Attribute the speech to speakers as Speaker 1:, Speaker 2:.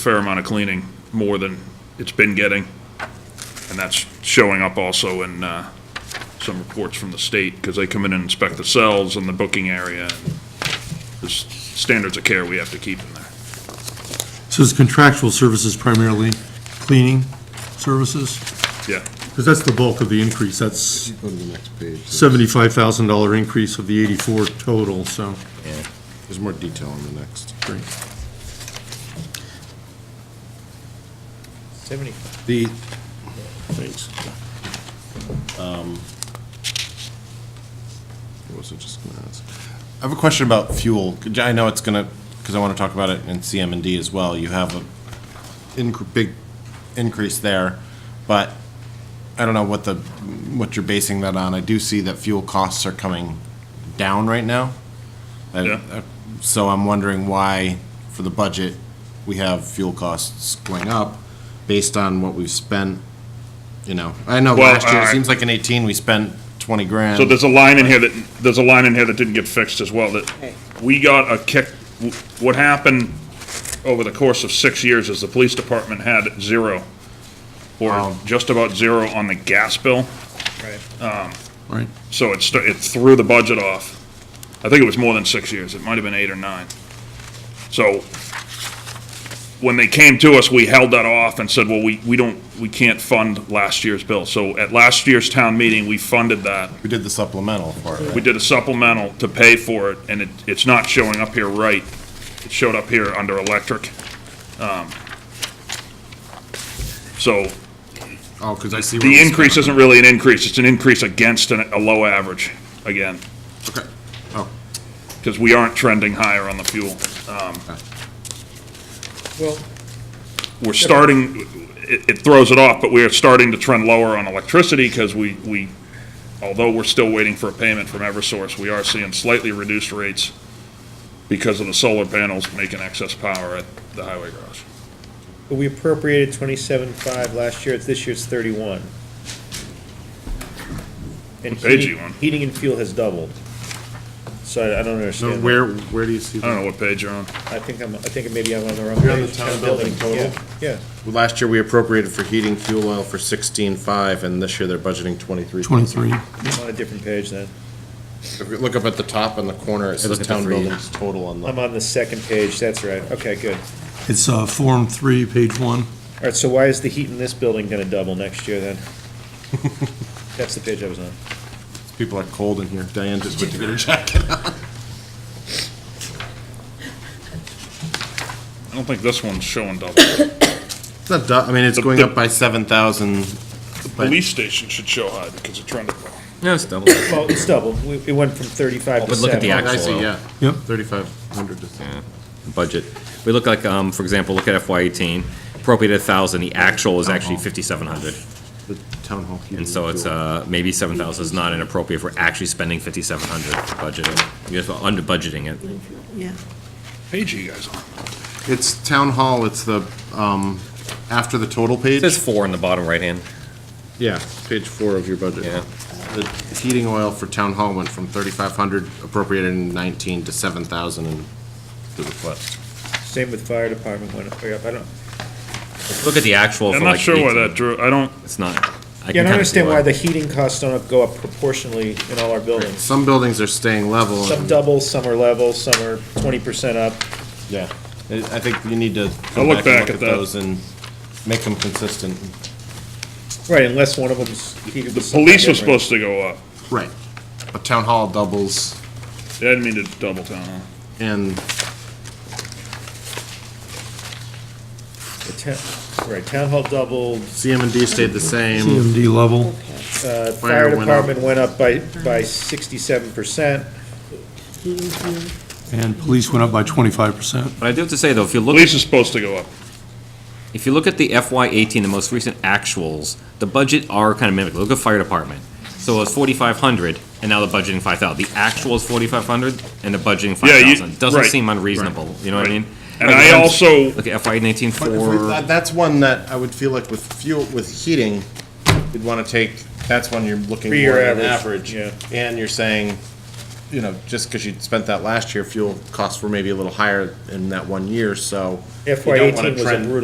Speaker 1: fair amount of cleaning, more than it's been getting. And that's showing up also in uh, some reports from the state, because they come in and inspect the cells and the booking area. and There's standards of care we have to keep in there.
Speaker 2: So it's contractual services primarily, cleaning services?
Speaker 1: Yeah,
Speaker 2: Because that's the bulk of the increase, that's
Speaker 3: Go to the next page. There's-
Speaker 2: seventy-five thousand dollar increase of the eighty-four total, so.
Speaker 3: yeah. There's more detail on the next.
Speaker 2: great.
Speaker 4: Seventy.
Speaker 3: The, thanks. Um, What was I just gonna ask? I have a question about fuel. Could- I know it's gonna, because I want to talk about it in CM&D as well. You have a inc- big increase there, but I don't know what the, what you're basing that on. I do see that fuel costs are coming down right now. I-
Speaker 1: Yeah.
Speaker 3: uh, So I'm wondering why, for the budget, we have fuel costs going up based on what we've spent, you know? I know
Speaker 1: Well,
Speaker 3: last year, it
Speaker 1: I-
Speaker 3: seems like in 18, we spent 20 grand.
Speaker 1: so there's a line in here that, there's a line in here that didn't get fixed as well, that we got a kick, what happened over the course of six years is the police department had zero, or just about zero on the gas bill.
Speaker 2: Right.
Speaker 1: So it, st- it threw the budget off. I think it was more than six years. It might have been eight or nine. So when they came to us, we held that off and said, well, we, we don't, we can't fund last year's bill. So at last year's town meeting, we funded that.
Speaker 3: We did the supplemental for it.
Speaker 1: We did a supplemental to pay for it, and it, it's not showing up here right. It showed up here under electric. Um, So
Speaker 3: Oh, because I see. where
Speaker 1: the
Speaker 3: this-
Speaker 1: increase isn't really an increase. It's an increase against an- a low average, again.
Speaker 3: Okay. Oh,
Speaker 1: because we aren't trending higher on the fuel. Um,
Speaker 4: Well,
Speaker 1: We're starting, it, it throws it off, but we are starting to trend lower on electricity because we, we, although we're still waiting for a payment from Eversource, we are seeing slightly reduced rates because of the solar panels making excess power at the highway garage.
Speaker 4: but we appropriated twenty-seven five last year, it's, this year's thirty-one. And
Speaker 1: What page
Speaker 4: heating-
Speaker 1: you on?
Speaker 4: Heating and fuel has doubled. So I- I don't
Speaker 3: no,
Speaker 4: understand. that.
Speaker 3: where, where do you see
Speaker 1: I
Speaker 3: that?
Speaker 1: don't know what page you're on.
Speaker 4: I think I'm, I think maybe I'm on the wrong page.
Speaker 3: You're on the town building total?
Speaker 4: Yeah,
Speaker 3: Well, Last year, we appropriated for heating fuel oil for 16.5, and this year they're budgeting 23.
Speaker 2: Twenty-three,
Speaker 4: yeah, I'm on a different page then.
Speaker 3: If you look up at the top in the corner, it says town buildings total on
Speaker 4: I'm
Speaker 3: the.
Speaker 4: on the second page, that's right, okay, good.
Speaker 2: it's, uh, Form Three, page one.
Speaker 4: All right, so why is the heat in this building gonna double next year then? That's the page I was on.
Speaker 3: People are cold in here. Diane just went to get her jacket.
Speaker 1: I don't think this one's showing double.
Speaker 3: It's not, du- I mean, it's
Speaker 1: The-
Speaker 3: going
Speaker 1: the-
Speaker 3: up by 7,000.
Speaker 1: The police station should show high because it trended low.
Speaker 5: No, it's double. It
Speaker 4: Well, it's double, We- it went from thirty-five to
Speaker 5: But look at the
Speaker 4: seven.
Speaker 5: act-
Speaker 3: I
Speaker 5: Actual
Speaker 3: see,
Speaker 5: oil.
Speaker 3: yeah.
Speaker 2: Yep.
Speaker 3: 3,500 to
Speaker 5: budget. We look like, um, for example, look at FY eighteen, appropriated thousand, the actual is actually
Speaker 1: Uh-huh.
Speaker 5: fifty-seven hundred.
Speaker 3: the town hall heating.
Speaker 5: And so it's,
Speaker 3: fuel.
Speaker 5: uh, maybe seven thousand is not inappropriate if we're actually spending fifty-seven hundred budgeted. You're just under budgeting it.
Speaker 6: Yeah,
Speaker 1: Page are you guys on?
Speaker 3: It's town hall, it's the, um, after the total
Speaker 5: It
Speaker 3: page?
Speaker 5: says four in the bottom right hand.
Speaker 3: Yeah, page four of your budget.
Speaker 5: Yeah.
Speaker 3: The heating oil for town hall went from 3,500 appropriated in 19 to 7,000 in the request.
Speaker 4: Same with fire department went up, way up. I don't,
Speaker 5: Look at the actual for
Speaker 1: I'm not
Speaker 5: like
Speaker 1: sure why
Speaker 5: 18.
Speaker 1: that drew, I don't,
Speaker 5: It's not. can
Speaker 4: Yeah, I
Speaker 5: kinda
Speaker 4: don't
Speaker 5: see
Speaker 4: understand why the heating costs don't go up proportionally in all our buildings.
Speaker 3: Some buildings are staying level.
Speaker 4: Some
Speaker 3: and-
Speaker 4: double, some are level, some are twenty percent up.
Speaker 3: Yeah, I I think you need to
Speaker 1: I'll
Speaker 3: go
Speaker 1: look
Speaker 3: back
Speaker 1: back at
Speaker 3: and look at
Speaker 1: that.
Speaker 3: those and make them consistent.
Speaker 4: Right, unless one of them's heated.
Speaker 1: the police was supposed to go up.
Speaker 3: Right. A town hall doubles
Speaker 1: I didn't mean to double down on.
Speaker 3: and
Speaker 4: Right, town hall doubled,
Speaker 3: CM and D stayed the same.
Speaker 2: CMD level,
Speaker 6: okay.
Speaker 4: uh,
Speaker 3: Fire
Speaker 4: fire
Speaker 3: went up.
Speaker 4: department went up by, by sixty-seven percent.
Speaker 6: Heating fuel,
Speaker 2: and police went up by twenty-five percent.
Speaker 5: But I do have to say though, if you look.
Speaker 1: Police is supposed to go up.
Speaker 5: If you look at the FY eighteen, the most recent actuals, the budget are kind of mimic. Look at fire department. So it was forty-five hundred, and now they're budgeting five thousand. The actual is forty-five hundred, and they're budgeting
Speaker 1: Yeah,
Speaker 5: five
Speaker 1: you-
Speaker 5: thousand. Doesn't
Speaker 1: right,
Speaker 5: seem unreasonable, you know what I
Speaker 1: right.
Speaker 5: mean?
Speaker 1: And
Speaker 5: Like,
Speaker 1: I
Speaker 5: I'm-
Speaker 1: also-
Speaker 5: Look at FY nineteen
Speaker 3: But if we-
Speaker 5: four,
Speaker 3: that- That's one that I would feel like with fuel, with heating, you'd want to take, that's when you're looking
Speaker 4: Three-year
Speaker 3: more at an average.
Speaker 4: average, yeah.
Speaker 3: And you're saying, you know, just because you spent that last year, fuel costs were maybe a little higher in that one year, so. you
Speaker 4: FY
Speaker 3: don't wanna
Speaker 4: eighteen was a
Speaker 3: trend-
Speaker 4: brutal